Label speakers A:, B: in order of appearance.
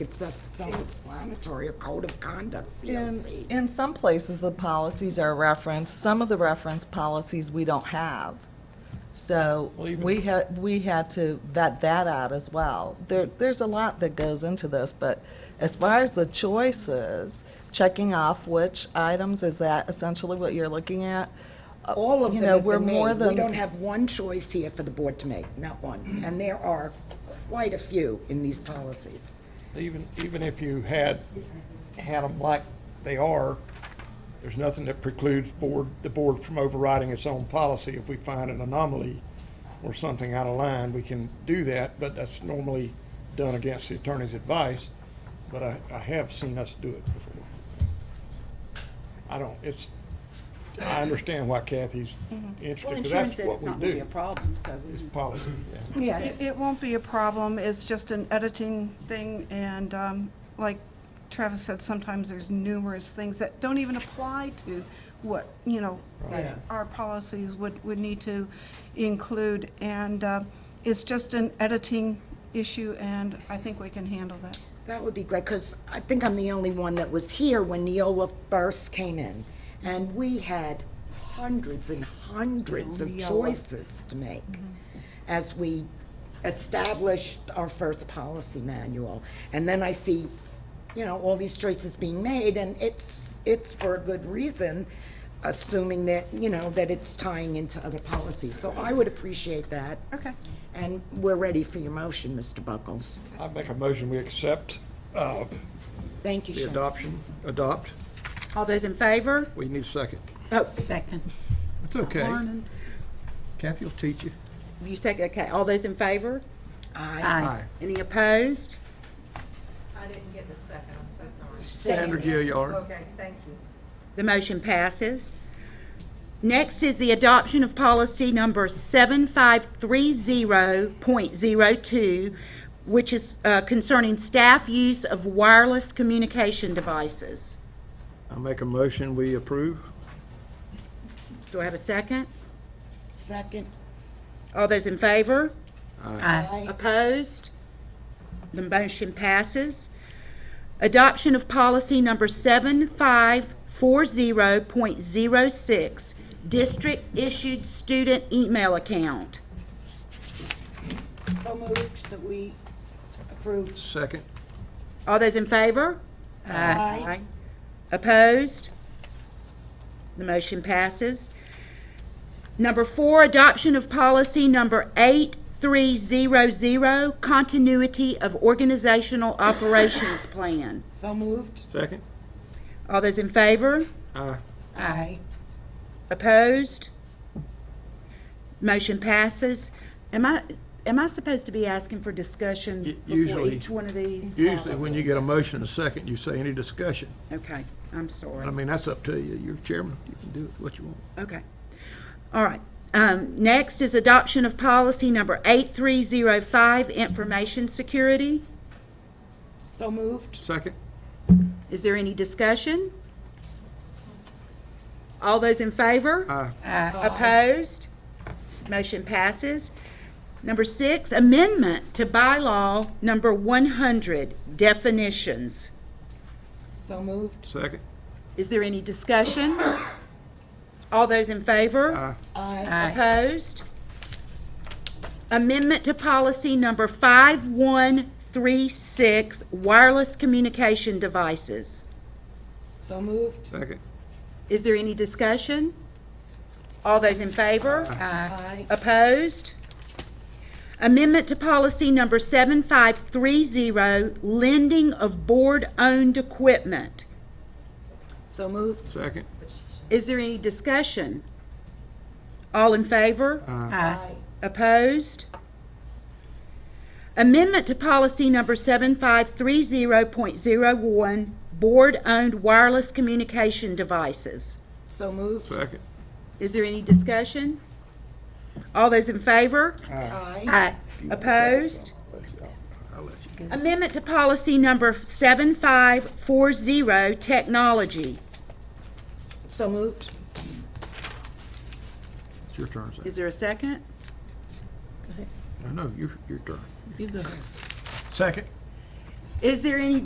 A: It's a self-explanatory, a code of conduct,
B: In,
A: COC.
B: in some places, the policies are referenced, some of the reference policies we don't have. So
C: Well, even-
B: we had, we had to vet that out as well. There, there's a lot that goes into this, but as far as the choices, checking off which items, is that essentially what you're looking at? Uh,
A: All of
B: you
A: them
B: know,
A: have
B: we're
A: been
B: more
A: made. We
B: than-
A: don't have one choice here for the board to make, not one. And there are quite a few in these policies.
C: Even, even if you had, had them like they are, there's nothing that precludes board, the board from overriding its own policy. If we find an anomaly or something out of line, we can do that, but that's normally done against the attorney's advice. But I, I have seen us do it before. I don't, it's, I understand why Kathy's
D: Mm-hmm. Well,
C: interested,
D: insurance
C: because that's
D: said
C: what
D: it's
C: we
D: not gonna be a
C: do.
D: problem, so. we-
C: It's policy, yeah.
E: It, it won't be a problem, it's just an editing thing, and um, like Travis said, sometimes there's numerous things that don't even apply to what, you know, our policies would, would need to include, and uh, it's just an editing issue, and I think we can handle that.
A: That would be great, because I think I'm the only one that was here when Neola first came in. And we had hundreds and hundreds of choices to make as we established our first policy manual. And then I see, you know, all these choices being made, and it's, it's for a good reason, assuming that, you know, that it's tying into other policies. So I would appreciate that.
E: Okay.
A: And we're ready for your motion, Mr. Buckles.
C: I make a motion, we accept, uh,
A: Thank you,
C: the
A: Sharon.
C: adoption, adopt.
D: All those in favor?
C: We need a second.
A: Oh,
D: Second.
C: It's okay. Kathy will teach you.
D: You second, okay. All those in favor?
A: Aye.
D: Any opposed?
F: I didn't get the second, I'm so sorry.
C: Sandra Gilliard.
F: Okay, thank you.
D: The motion passes. Next is the adoption of policy number 7530.02, which is uh, concerning staff use of wireless communication devices.
C: I make a motion, we approve.
D: Do I have a second?
A: Second.
D: All those in favor? Opposed? The motion passes. Adoption of policy number 7540.06, district-issued student email account.
A: So moved that we approved.
C: Second.
D: All those in favor? Aye. Opposed? The motion passes. Number four, adoption of policy number 8300, continuity of organizational operations plan.
A: So moved.
C: Second.
D: All those in favor?
C: Aye.
A: Aye.
D: Opposed? Motion passes. Am I, am I supposed to be asking for
C: Y-
D: discussion before
C: usually-
D: each one of these?
C: Usually, when you get a motion and a second, you say any discussion.
D: Okay, I'm sorry.
C: I mean, that's up to you. You're chairman. You can do what you want.
D: Okay. All right. Um, Next is adoption of policy number 8305, information security.
A: So moved.
C: Second.
D: Is there any discussion? All those in favor?
C: Aye.
D: Opposed? Motion passes. Number six, amendment to bylaw number 100, definitions.
A: So moved.
C: Second.
D: Is there any discussion? All those in favor?
A: Aye.
D: Opposed? Amendment to policy number 5136, wireless communication devices.
A: So moved.
C: Second.
D: Is there any discussion? All those in favor? Aye. Opposed? Amendment to policy number 7530, lending of board-owned equipment.
A: So moved.
C: Second.
D: Is there any discussion? All in favor?
A: Aye.
D: Opposed? Amendment to policy number 7530.01, board-owned wireless communication devices.
A: So moved.
C: Second.
D: Is there any discussion? All those in favor?
A: Aye.
D: Opposed?
C: I'll let you.
D: Amendment to policy number 7540, technology.
A: So moved.
C: It's your turn, Zach.
D: Is there a second?
C: I know, your, your turn. You go. Second.
E: Is there any